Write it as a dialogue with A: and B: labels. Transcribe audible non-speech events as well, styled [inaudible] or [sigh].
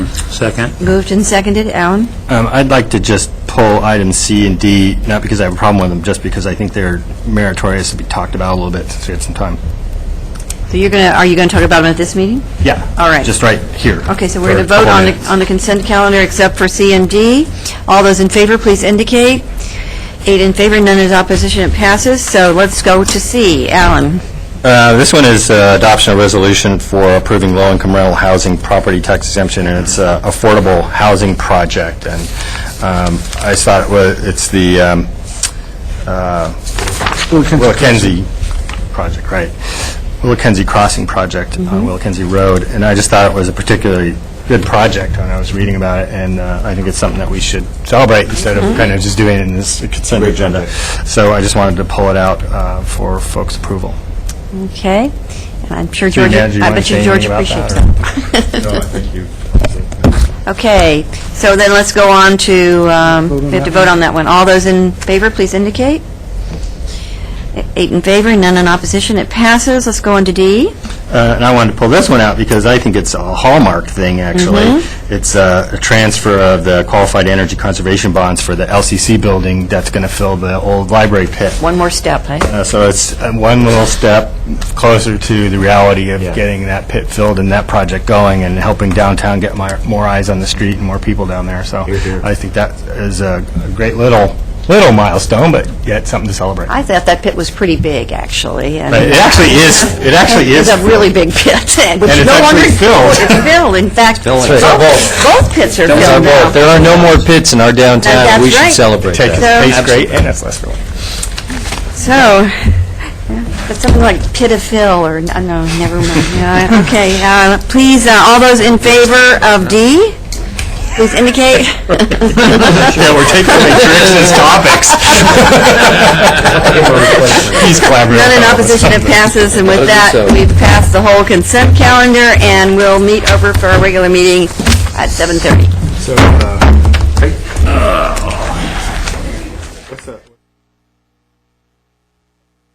A: Second.
B: Moved and seconded, Alan?
C: Um, I'd like to just pull item C and D, not because I have a problem with them, just because I think they're meritorious to be talked about a little bit, since we had some time.
B: So you're going to, are you going to talk about them at this meeting?
C: Yeah.
B: All right.
C: Just right here.
B: Okay, so
C: for
B: we're going
C: a
B: to vote
C: couple
B: on the,
C: minutes.
B: on the consent calendar except for C and D. All those in favor, please indicate. Eight in favor, none is opposition, it passes. So let's go to C. Alan?
C: Uh, This one is uh, adoption of resolution for approving low-income rental housing property tax exemption, and it's a affordable housing project. And um, I thought, well, it's the um, uh, Wilkenzie project, right? Wilkenzie Crossing project
B: Mm-hmm.
C: on Wilkenzie Road, and I just thought it was a particularly good project when I was reading about it, and uh, I think it's something that we should celebrate instead
B: Mm-hmm.
C: of kind of just doing it in this consent agenda. So I just wanted to pull it out uh, for folks' approval.
B: Okay. And I'm sure
C: City
B: George,
C: manager, you
B: I
C: wanna
B: bet you
C: say
B: George
C: anything about
B: appreciates
C: that,
B: that.
C: or-
D: No, I think
C: [laughs]
D: you,
B: [laughs] Okay, so then let's go on to, um, we have to vote on that one. All those in favor, please indicate. Eight in favor, none in opposition, it passes. Let's go on to D.
C: Uh, and I wanted to pull this one out because I think it's a hallmark thing, actually.
B: Mm-hmm.
C: It's uh, a transfer of the qualified energy conservation bonds for the LCC building that's going to fill the old library pit.
B: One more step, right?
C: Uh, So it's uh, one little step closer to the reality of getting that pit filled and that project going and helping downtown get my- more eyes on the street and more people down there. So I think that is a a great little, little milestone, but yet something to celebrate.
B: I thought that pit was pretty big, actually. and-
C: But It actually is, it actually is.
B: It's a really big pit, [laughs] and
C: And it's
B: no longer...
C: actually filled.
B: It's filled, in fact, both
C: That's right.
B: both pits are filled now.
E: There are no more pits in our
B: That-
E: downtown. We
B: that's right.
E: should celebrate
C: Take
E: that.
C: it, tastes great, and it's less filling.
B: So, yeah, but something like pit of fill, or, uh, no, never
C: [laughs]
B: mind. Yeah, Okay, uh, please, uh, all those in favor of D, please indicate.
C: [laughs] Yeah, we're taking away tricks as
B: [laughs]
C: topics. [laughs] He's collaborating.
B: None in opposition, it passes, and with that, we've passed the whole consent calendar, and we'll meet over for our regular meeting at 7:30.
D: so, uh,